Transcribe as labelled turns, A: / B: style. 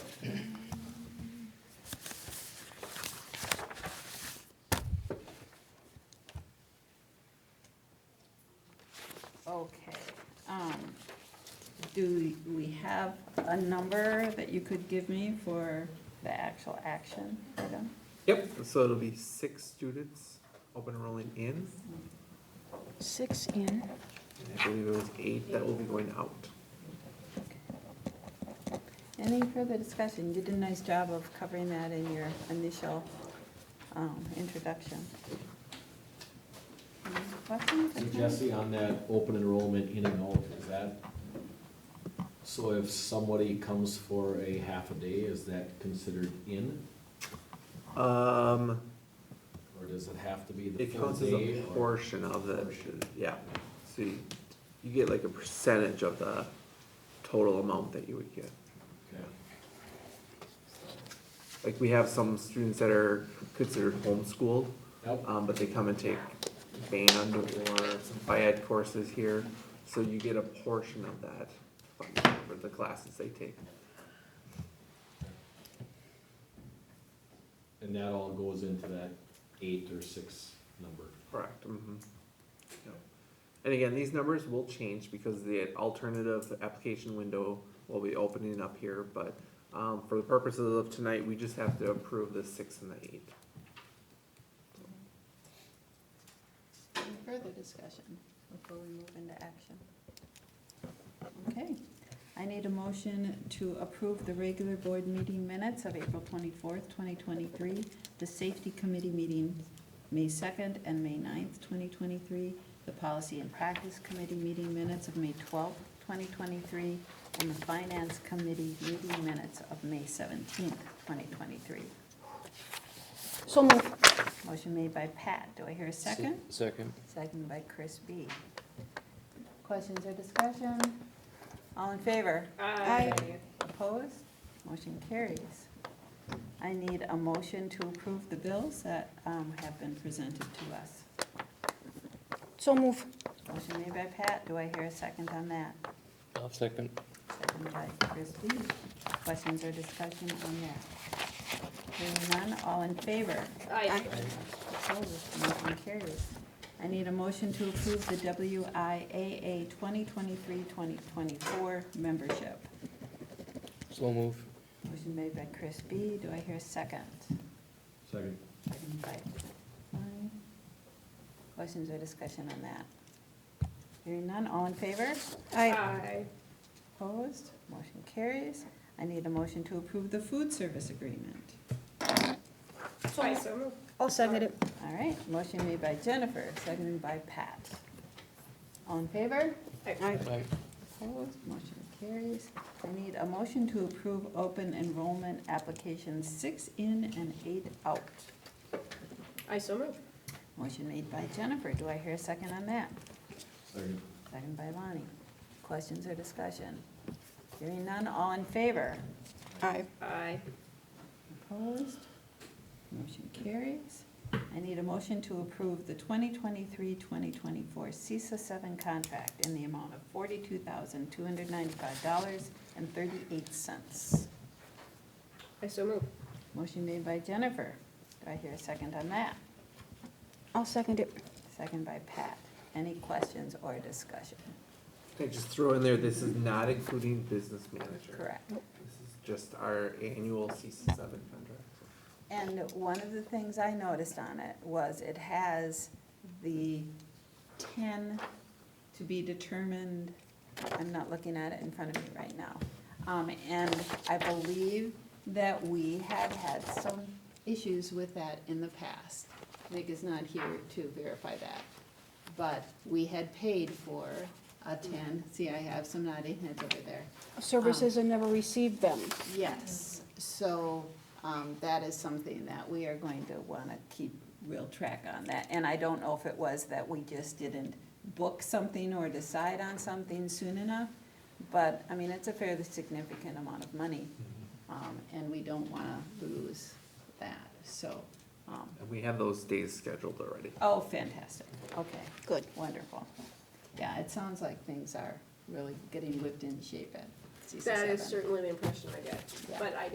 A: um, have a number that you could give me for the actual action item?
B: Yep, so it'll be six students open enrolling in,
A: Six in.
B: and I believe it was eight that will be going out.
A: Any further discussion? You did a nice job of covering that in your initial um, introduction. Any questions?
C: So Jesse, on that open enrollment in and out, is that, so if somebody comes for a half a day, is that considered in?
B: Um,
C: Or does it have to be the
B: it
C: full
B: counts as a
C: day? or-
B: portion of the, yeah, so you, you get like a percentage of the total amount that you would get.
C: Okay.
B: Like, we have some students that are considered homeschooled,
C: Yep,
B: um, but they come and take band or some ed courses here, so you get a portion of that funding for the classes they take.
C: and that all goes into that eight or six number.
B: Correct, mhm. Yep. And again, these numbers will change because the alternative application window will be opening up here, but, um, for the purposes of tonight, we just have to approve the six and the eight.
A: Any further discussion before we move into action? Okay, I need a motion to approve the regular board meeting minutes of April twenty-fourth, twenty twenty-three, the safety committee meetings, May second and May 9th, twenty twenty-three, the policy and practice committee meeting minutes of May twelfth, twenty twenty-three, and the finance committee meeting minutes of May seventeenth, twenty twenty-three.
D: So moved.
A: Motion made by Pat, do I hear a second?
E: Second.
A: Second by Chris B. Questions or discussion? All in favor? Aye. Opposed? Motion carries. I need a motion to approve the bills that um, have been presented to us.
D: So move.
A: Motion made by Pat, do I hear a second on that?
E: I'll second.
A: Second by Chris B. Questions or discussion on that? Hearing none, all in favor?
D: Aye.
A: Opposed, motion carries. I need a motion to approve the WIAA 2023-2024 membership.
E: Slow move.
A: Motion made by Chris B. Do I hear a second?
C: Second.
A: Second by Klein. Questions or discussion on that? Hearing none, all in favor?
D: Aye.
A: Opposed, motion carries. I need a motion to approve the food service agreement.
D: Aye, so moved. I'll second it.
A: All right, motion made by Jennifer, seconded by Pat. All in favor?
D: Aye.
E: Aye.
A: Opposed, motion carries. I need a motion to approve open enrollment applications six in and eight out.
D: Aye, so moved.
A: Motion made by Jennifer, do I hear a second on that?
C: Second.
A: Second by Lonnie. Questions or discussion? Hearing none, all in favor?
D: Aye. Aye.
A: Opposed? Motion carries. I need a motion to approve the 2023-2024 CISA 7 contract in the amount of $42,295.38.
D: I so moved.
A: Motion made by Jennifer. Do I hear a second on that?
D: I'll second it.
A: Second by Pat. Any questions or discussion?
B: Can I just throw in there, this is not including business manager.
A: Correct.
B: This is just our annual CC seven contract.
A: And one of the things I noticed on it was it has the ten to be determined, I'm not looking at it in front of me right now. Um, and I believe that we had had some issues with that in the past. Nick is not here to verify that. But we had paid for a ten, see, I have some nodding heads over there.
F: services and never received them.
A: Yes, so um, that is something that we are going to want to keep real track on that. And I don't know if it was that we just didn't book something or decide on something soon enough, but, I mean, it's a fairly significant amount of money, um, and we don't want to lose that, so. um,
B: And we have those days scheduled already.
A: Oh, fantastic, okay.
F: Good.
A: Wonderful. Yeah, it sounds like things are really getting whipped in shape at CC7.
D: That is certainly the impression I get,
A: Yeah.
D: but I